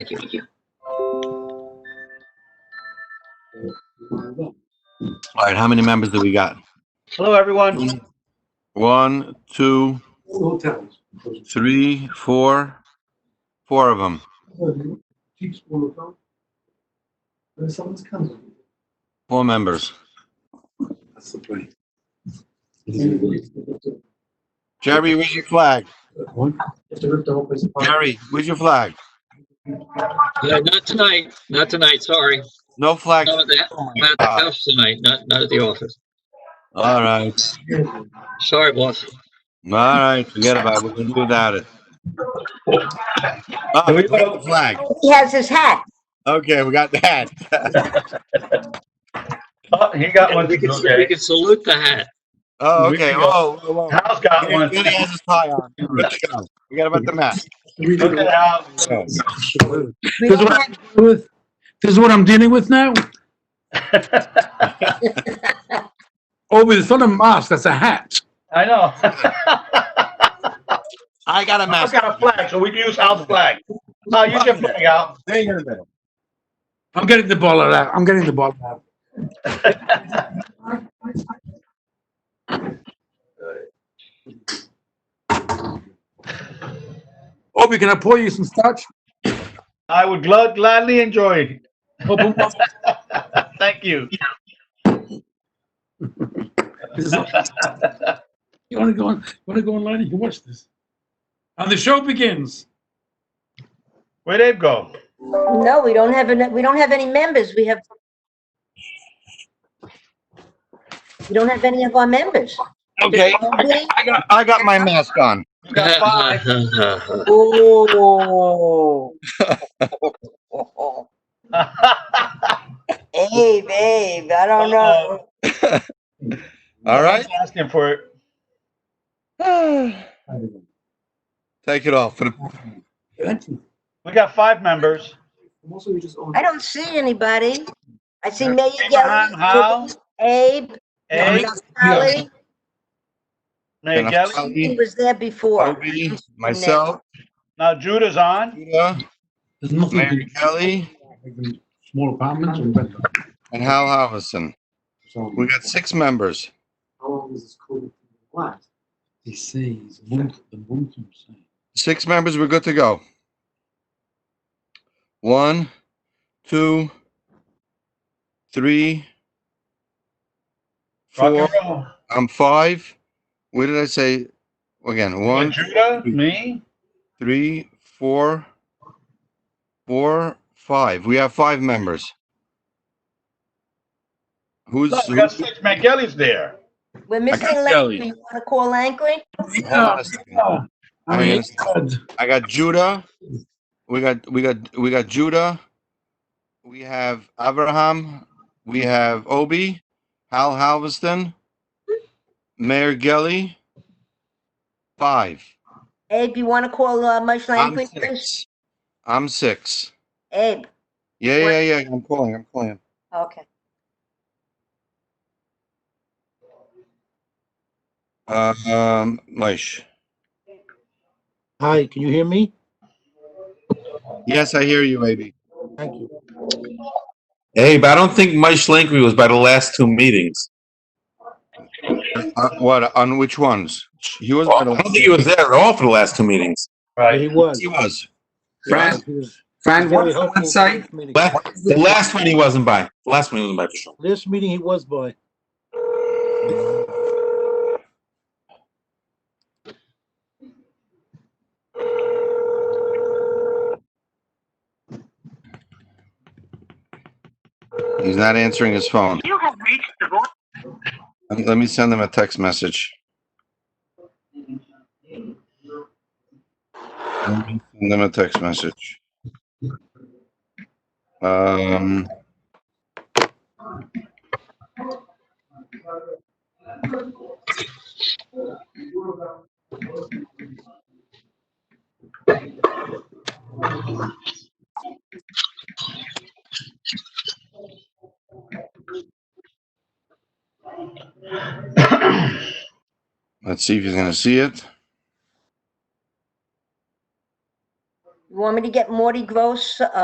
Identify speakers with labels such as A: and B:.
A: Thank you, thank you.
B: All right, how many members do we got?
C: Hello, everyone.
B: One, two, three, four, four of them. Four members.
D: That's the point.
B: Jerry, where's your flag? Jerry, where's your flag?
A: Yeah, not tonight, not tonight, sorry.
B: No flag.
A: Not at the, not at
C: Uh,
A: the house tonight, not, not at the office.
B: All right,
A: Sorry, boss.
B: all right, forget about it. We can do without it. Oh, we got the flag.
E: He has his hat.
B: Okay, we got that.
C: Oh, He got one.
A: We can, we
C: Okay.
A: can salute the hat.
B: Oh, okay. Oh, oh, oh.
C: Hal's got one.
B: Billy has his tie on. Let's go. Forget about the mask.
C: Look at Hal.
E: We
F: Does
E: don't
F: what-
E: have-
F: with. This is what I'm dealing with now. Over, Oh, it's not a mask, that's a hat.
C: I know.
B: I got a
C: I've
B: mask.
C: got a flag, so we can use Hal's flag. Hal, use your flag, Hal.
B: Hang on a minute.
F: I'm getting the ball out. I'm getting the ball out. Obi, can I pour you some starch?
C: I would glad- gladly enjoy
F: Open one.
C: it. Thank you.
F: This is- You want to go on? You want to go online? You can watch this. And the show begins.
C: Where'd Abe go?
E: No, we don't have, an- we don't have any members. We have. We don't have any of our members.
B: Okay, I got, I got, I got my mask on.
C: You got five.
E: Oh. Hey, babe, I don't know.
B: All right,
C: Asking for it.
B: take it off for the
C: We got five members.
E: I don't see anybody. I see Mayor
C: Abraham Howe.
E: Gelli, Abe,
C: Abe,
E: Sally.
C: Mayor
B: And
C: Gelli.
B: I'm-
E: He was there before.
B: Obi, myself,
C: Now Judah's on.
B: Judah,
F: There's nothing.
B: Mary Kelly,
F: Small apartments and better.
B: and Hal Halverson. We got six members.
F: They say it's one, the one from saying.
B: Six members, we're good to go. One, two, three, four,
C: Rock and roll.
B: I'm five. What did I say? Again, one,
C: Judah, me,
B: three, four, four, five. We have five members. Who's,
C: No, we got
B: who's
C: six. McGilly's there.
E: We're missing
B: got
E: Langley. You want to call Langley?
B: hold on a second. I mean, it's- I got Judah. We got we got we got Judah. We have Abraham. We have Obi, Hal Halveston, Mayor Gelli. Five.
E: Abe, you want to call uh, Mush
B: I'm
E: Langley, please?
B: six. I'm six.
E: Abe,
B: Yeah, yeah, yeah. I'm calling. I'm calling.
E: okay.
B: Uh, um, Moish.
G: Hi, can you hear me?
B: Yes, I hear you, AB.
G: Thank you.
H: Hey, but I don't think Mike Schlenkery was by the last two meetings.
B: Uh, what on which ones? He was.
H: I don't think he was there at all for the last two meetings.
G: Yeah, He was.
B: He was.
G: Yeah, he was very helpful for this meeting.
H: La- The last one he wasn't by. The last one he wasn't by for sure.
G: Last meeting he was by.
B: He's not answering his phone.
E: You have reached the voice.
B: Let me- Let me send him a text message. Let me Send them a text message. Um. Let's see if he's gonna see it.
E: want me to get Morty Gross, uh,